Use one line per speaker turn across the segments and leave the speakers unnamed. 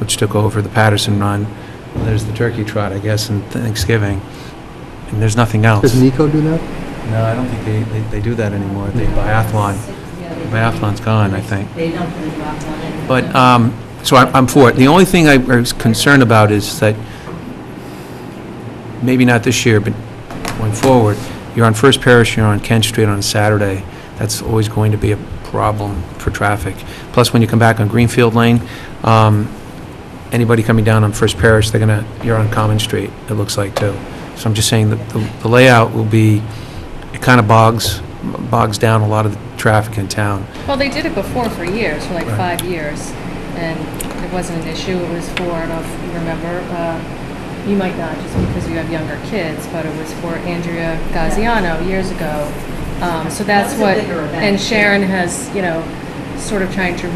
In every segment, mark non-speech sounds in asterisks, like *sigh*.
which took over the Patterson Run. There's the Turkey Trot, I guess, and Thanksgiving. And there's nothing else.
Does Nico do that?
No, I don't think they, they, they do that anymore.
Mm.
The biathlon,
Yeah,
the
they-
biathlon's gone, I think.
They don't put a drop on it.
But, um, so I'm, I'm for it. The only thing I was concerned about is that, maybe not this year, but going forward, you're on First Parish, you're on Kent Street on Saturday. That's always going to be a problem for traffic. Plus, when you come back on Greenfield Lane, um, anybody coming down on First Parish, they're gonna, you're on Common Street, it looks like, too. So I'm just saying that the the layout will be, it kind of bogs, bogs down a lot of the traffic in town.
Well, they did it before for years, for like
Right.
five years, and it wasn't an issue. It was for, I don't know if you remember, uh, you might not, just because you have younger kids, but it was for Andrea Gaziano years ago. Um, So
That
that's
was a
what,
bigger event.
and Sharon has, you know, sort of trying to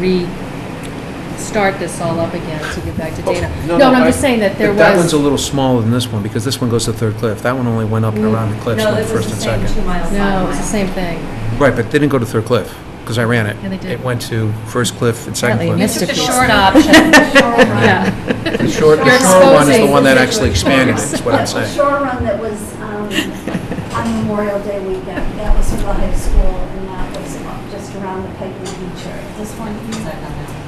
restart this all up again to get back to Dana. No, no, I'm just saying that there
But That one's
was,
a little smaller than this one, because this one goes to Third Cliff. That one only went up and around the cliffs,
No,
went
this
first
was the
and
same
second.
two miles,
no,
five
it was the
miles.
same thing.
Right, but they didn't go to Third Cliff, because I ran it.
Yeah, they did.
It went to First Cliff and Second
Apparently you
Cliff.
missed
It's
a
the
piece.
short option. *laughs* Yeah.
The short, the
You're
short one is the
exposing
one that
the
actually expanded, is
*laughs*
what I'm
The
saying.
shore run that was um, on Memorial Day weekend, that was for the high school, and that was just around the Piper Beach area. This one,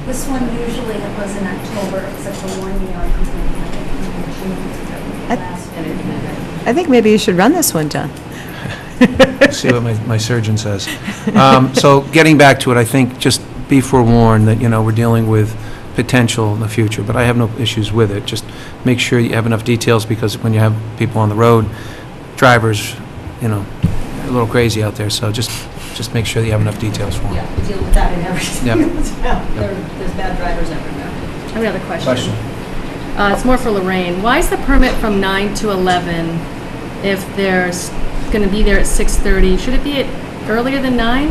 this one usually it was in October, except for one year, I completely had it in June.
I-
Last
And
year.
it never-
I think maybe you should run this one, John.
See what my, my surgeon says. Um, So getting back to it, I think just be forewarned that, you know, we're dealing with potential in the future, but I have no issues with it. Just make sure you have enough details, because when you have people on the road, drivers, you know, a little crazy out there, so just, just make sure that you have enough details for them.
Yeah, we deal with that in every
Yep.
single *laughs* town. There- There's bad drivers everywhere.
I have another question. Uh, It's more for Lorraine. Why is the permit from 9 to 11 if there's going to be there at 6:30? Should it be at earlier than 9? I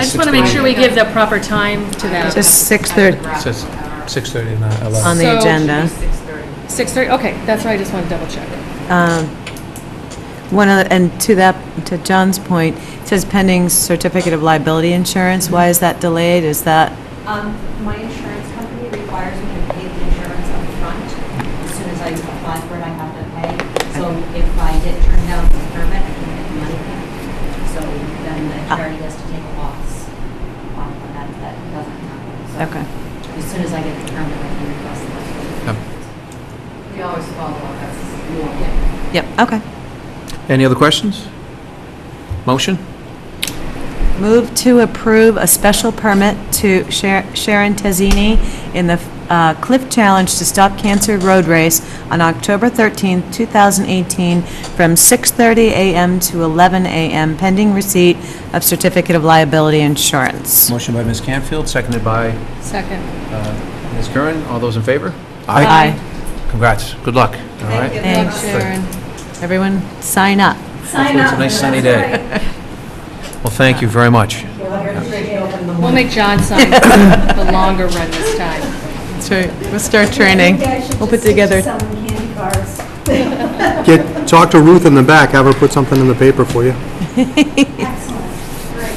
just want to make sure we give the proper time to them.
Just 6:30.
Says 6:30 and not 11.
On the
So-
agenda.
6:30, okay, that's what I just want to double check.
Um, One other, and to that, to John's point, it says pending certificate of liability insurance. Why is that delayed? Is that,
Um, My insurance company requires me to pay the insurance up front. As soon as I apply for it, I have to pay. So if I get turned down for the permit, I can get the money back. So then the charity has to take a loss on on that. That doesn't happen. So
okay.
As soon as I get the permit, I can request the money.
Yep.
We always follow up, that's normal.
Yep, okay.
Any other questions? Motion?
Move to approve a special permit to Sha- Sharon Tezzini in the uh, Cliff Challenge to Stop Cancer Road Race on October 13th, 2018, from 6:30 a.m. to 11 a.m., pending receipt of certificate of liability insurance.
Motion by Ms. Canfield, seconded by
Second.
uh, Ms. Curran. All those in favor?
Aye.
Congrats. Good luck. All right.
you.
Thanks.
Sharon.
Everyone, sign up.
Hopefully it's a nice sunny day. Well, thank you very much.
We'll make John sign the longer run this time.
We'll start
I think I should
We'll
just
put
teach
together,
Some candy bars.
Get, talk to Ruth in the back, have her put something in the paper for you.
Excellent, great.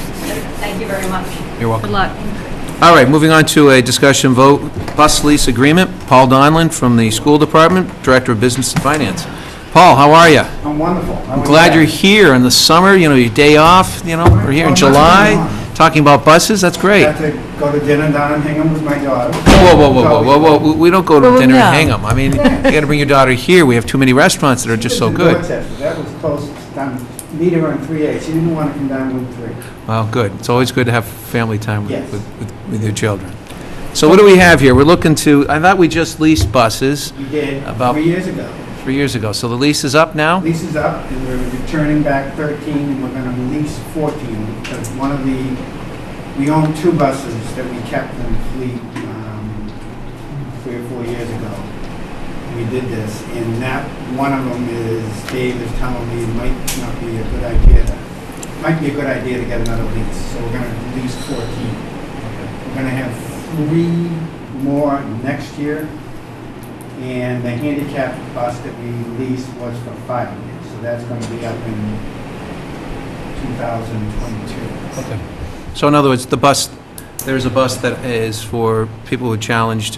Thank you very much.
You're welcome.
Good luck.
All right, moving on to a discussion vote, bus lease agreement. Paul Donlin from the School Department, Director of Business and Finance. Paul, how are you?
I'm wonderful.
I'm glad you're here in the summer, you know, your day off, you know, we're here in July, talking about buses, that's great.
Got to go to dinner down in Hingham with my daughter.
Whoa, whoa, whoa, whoa, whoa, whoa, we- we don't go to
Well,
dinner
no.
and hang 'em. I mean, you gotta bring your daughter here, we have too many restaurants that are just so
She lives in
good.
Dorchester. That was close, down, meet her on three A, she didn't want to come down with three.
Well, good, it's always good to have family time with,
Yes.
with- with- with your children. So what do we have here? We're looking to, I thought we just leased buses
We did,
About-
three years ago.
three years ago, so the lease is up now?
Lease is up, and we're returning back thirteen, and we're gonna lease fourteen, because one of the, we own two buses that we kept in the fleet, um, three or four years ago. We did this, and that, one of them is, Dave is telling me it might not be a good idea, to- might be a good idea to get another lease, so we're gonna lease fourteen. We're gonna have three more next year, and the handicap bus that we leased was for five years, so that's going to be up in 2022.
So in other words, the bus there's a bus that is for people who challenged